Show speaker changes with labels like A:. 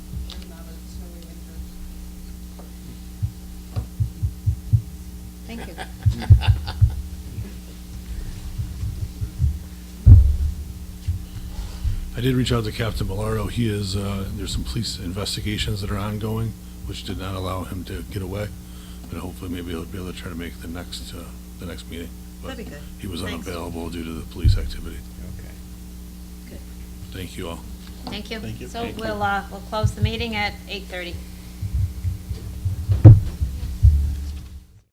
A: I did reach out to Captain Bellardo. He is, uh, there's some police investigations that are ongoing, which did not allow him to get away. But hopefully maybe he'll be able to try to make the next, uh, the next meeting.
B: That'd be good.
A: He was
B: Thanks.
A: unavailable due to the police activity.
C: Okay.
A: Thank you all.
D: Thank you.
C: Thank you.
D: So
C: Thank you.
D: we'll, uh, we'll close the meeting at eight thirty.